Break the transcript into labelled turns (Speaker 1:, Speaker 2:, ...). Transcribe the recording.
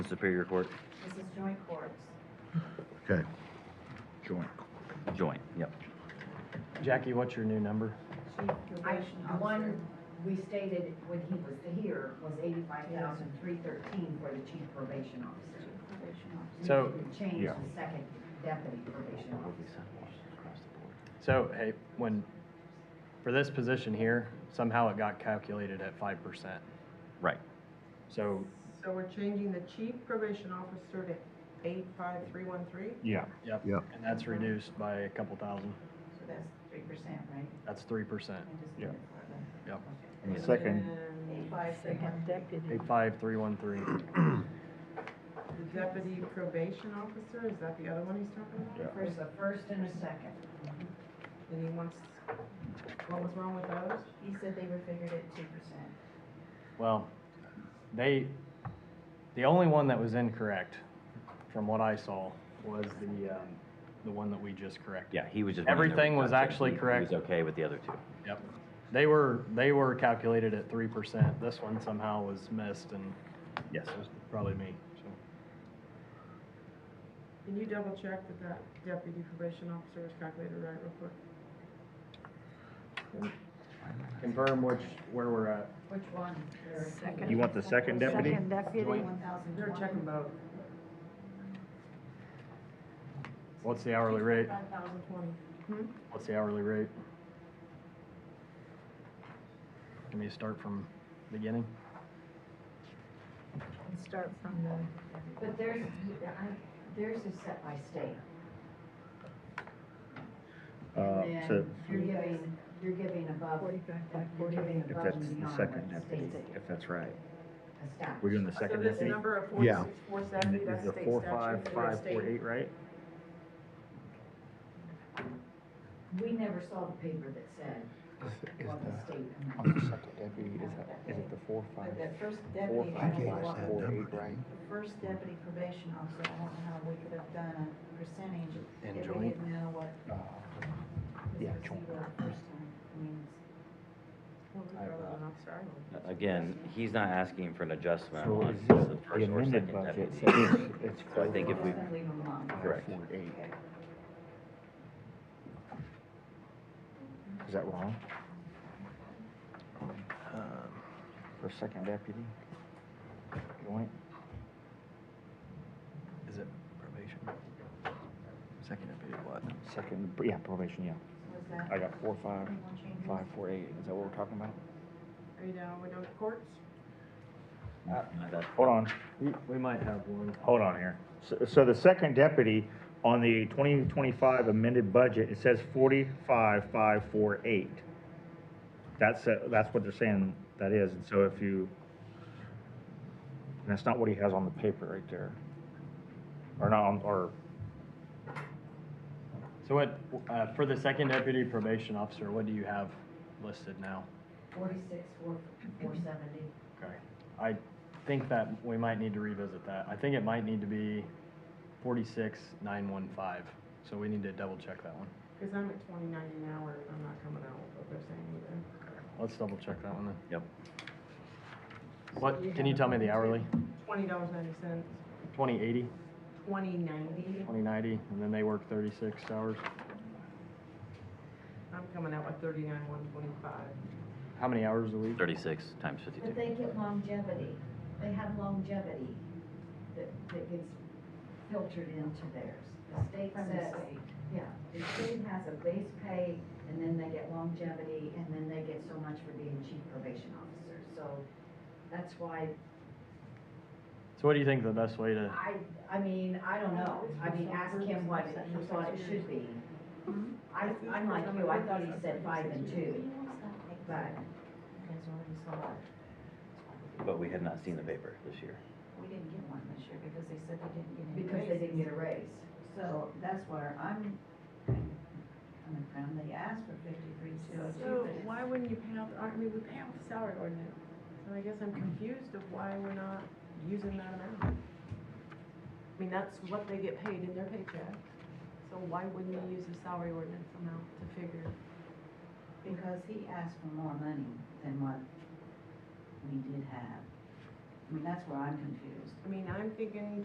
Speaker 1: Superior Court?
Speaker 2: This is joint courts.
Speaker 3: Okay.
Speaker 4: Joint.
Speaker 1: Joint, yep.
Speaker 5: Jackie, what's your new number?
Speaker 2: I, one, we stated when he was here was eighty-five thousand three thirteen for the chief probation officer.
Speaker 5: So-
Speaker 2: Change
Speaker 4: Yeah.
Speaker 2: the second deputy probation officer.
Speaker 5: So, hey, when, for this position here, somehow it got calculated at five percent.
Speaker 1: Right.
Speaker 4: Oh.
Speaker 5: So,
Speaker 6: So we're changing the chief probation officer to eight five three one three?
Speaker 4: Yeah,
Speaker 5: yep.
Speaker 3: Yep.
Speaker 5: And that's reduced by a couple thousand.
Speaker 2: So that's three percent, right?
Speaker 5: That's three percent.
Speaker 4: Yeah.
Speaker 5: Yep.
Speaker 4: and the second,
Speaker 6: Five second.
Speaker 5: Eight five three one three.
Speaker 6: The deputy probation officer, is that the other one he's talking about?
Speaker 4: yeah,
Speaker 2: There's a first and a second.
Speaker 6: And he wants, what was wrong with those?
Speaker 2: He said they were figured at two percent.
Speaker 5: Well, they, the only one that was incorrect, from what I saw, was the, um, the one that we just corrected.
Speaker 1: Yeah, he was just. wondering if
Speaker 5: Everything was
Speaker 1: he-
Speaker 5: actually
Speaker 1: he
Speaker 5: correct.
Speaker 1: was okay with the other two.
Speaker 5: Yep. They were, they were calculated at three percent. This one somehow was missed and
Speaker 1: Yes.
Speaker 5: it was probably me, so.
Speaker 6: Can you double check that that deputy probation officer was calculated right real quick?
Speaker 5: Confirm which, where we're at.
Speaker 2: Which one?
Speaker 4: You want the second deputy?
Speaker 7: Second deputy,
Speaker 6: Joint. They're checking both.
Speaker 5: What's the hourly rate?
Speaker 6: Five thousand twenty.
Speaker 5: What's the hourly rate? Can we start from beginning?
Speaker 7: and start from the,
Speaker 2: But theirs, I- theirs is set by state.
Speaker 4: uh,
Speaker 2: And
Speaker 4: so,
Speaker 2: then You're giving, you're giving above, you're giving
Speaker 4: if
Speaker 2: above
Speaker 4: that's
Speaker 2: and
Speaker 4: the
Speaker 2: beyond
Speaker 4: second
Speaker 2: what
Speaker 4: deputy,
Speaker 2: state
Speaker 4: if that's right,
Speaker 2: established.
Speaker 4: we're doing the
Speaker 6: So
Speaker 4: second
Speaker 6: this
Speaker 4: deputy?
Speaker 6: number of
Speaker 3: Yeah.
Speaker 6: forty-six, four seventy, that's
Speaker 4: the
Speaker 6: state
Speaker 4: four,
Speaker 6: statute,
Speaker 4: five,
Speaker 6: for
Speaker 4: five,
Speaker 6: state.
Speaker 4: four, eight, right?
Speaker 2: We never saw the paper that said
Speaker 8: Is
Speaker 2: what the
Speaker 8: the,
Speaker 2: state.
Speaker 8: on the second deputy, is that, is it the four, five,
Speaker 9: But that first
Speaker 8: four,
Speaker 9: deputy, I
Speaker 8: five,
Speaker 9: don't
Speaker 3: us
Speaker 9: know
Speaker 8: five,
Speaker 9: what-
Speaker 3: that
Speaker 8: four,
Speaker 3: number,
Speaker 8: eight, right?
Speaker 9: the first deputy probation officer, I don't know how we could have done a percentage if we
Speaker 8: joint?
Speaker 9: didn't know what
Speaker 8: Uh,
Speaker 9: was
Speaker 8: Yeah,
Speaker 9: received
Speaker 8: joint.
Speaker 9: the first time. I mean,
Speaker 4: uh,
Speaker 1: Again, he's not asking for an adjustment
Speaker 8: So
Speaker 1: on
Speaker 8: is
Speaker 1: the
Speaker 8: this the
Speaker 1: first or
Speaker 8: amended
Speaker 1: second
Speaker 8: budget,
Speaker 1: deputy.
Speaker 8: so it's, it's
Speaker 1: So I
Speaker 8: four,
Speaker 1: think if
Speaker 2: We're
Speaker 1: we-
Speaker 2: just gonna leave them alone.
Speaker 8: five,
Speaker 1: Correct.
Speaker 8: four, eight. Is that wrong?
Speaker 1: Um,
Speaker 8: For second deputy? Joint?
Speaker 5: Is it probation? Second deputy what?
Speaker 8: Second, yeah, probation, yeah.
Speaker 9: Was that?
Speaker 8: I got four, five,
Speaker 9: anyone changing?
Speaker 8: five, four, eight, is that what we're talking about?
Speaker 6: Are you down, we're down to courts?
Speaker 1: That-
Speaker 4: Hold on,
Speaker 5: We, we might have one.
Speaker 4: hold on here. So, so the second deputy on the twenty twenty-five amended budget, it says forty-five, five, four, eight. That's, uh, that's what they're saying that is, and so if you, and that's not what he has on the paper right there. Or not, on- or,
Speaker 5: So what, uh, for the second deputy probation officer, what do you have listed now?
Speaker 2: Forty-six, four, four seventy.
Speaker 5: Okay. I think that we might need to revisit that. I think it might need to be forty-six, nine, one, five. So we need to double check that one.
Speaker 6: Because I'm at twenty ninety an hour and I'm not coming out with what they're saying either.
Speaker 5: Let's double check that one then.
Speaker 1: Yep.
Speaker 5: What, can you tell me the hourly?
Speaker 6: Twenty dollars ninety cents,
Speaker 5: Twenty eighty,
Speaker 6: twenty ninety,
Speaker 5: twenty ninety, and then they work thirty-six hours?
Speaker 6: I'm coming out with thirty-nine one twenty-five.
Speaker 5: How many hours a week?
Speaker 1: Thirty-six times fifty-two.
Speaker 2: But they get longevity. They have longevity that, that gets filtered into theirs. The state
Speaker 9: From the
Speaker 2: says,
Speaker 9: state.
Speaker 2: yeah, the state has a base pay and then they get longevity and then they get so much for being chief probation officer. So that's why
Speaker 5: So what do you think the best way to,
Speaker 2: I, I mean, I don't know, I mean, ask him what he thought it should be. I, I'm like you, I thought he said five and two, but
Speaker 1: But we had not seen the paper this year.
Speaker 9: We didn't get one this year because they said they didn't get any.
Speaker 2: because they didn't get a raise.
Speaker 9: So that's where I'm kind of coming from. They asked for fifty-three, two oh two,
Speaker 6: So
Speaker 9: but it's.
Speaker 6: why wouldn't you pay out, the- I mean, we pay out the salary ordinance, so I guess I'm confused of why we're not using that amount. I mean, that's what they get paid in their paycheck, so why wouldn't we use the salary ordinance amount to figure?
Speaker 9: Because he asked for more money than what we did have.
Speaker 10: I mean, that's where I'm confused.
Speaker 9: I mean, I'm thinking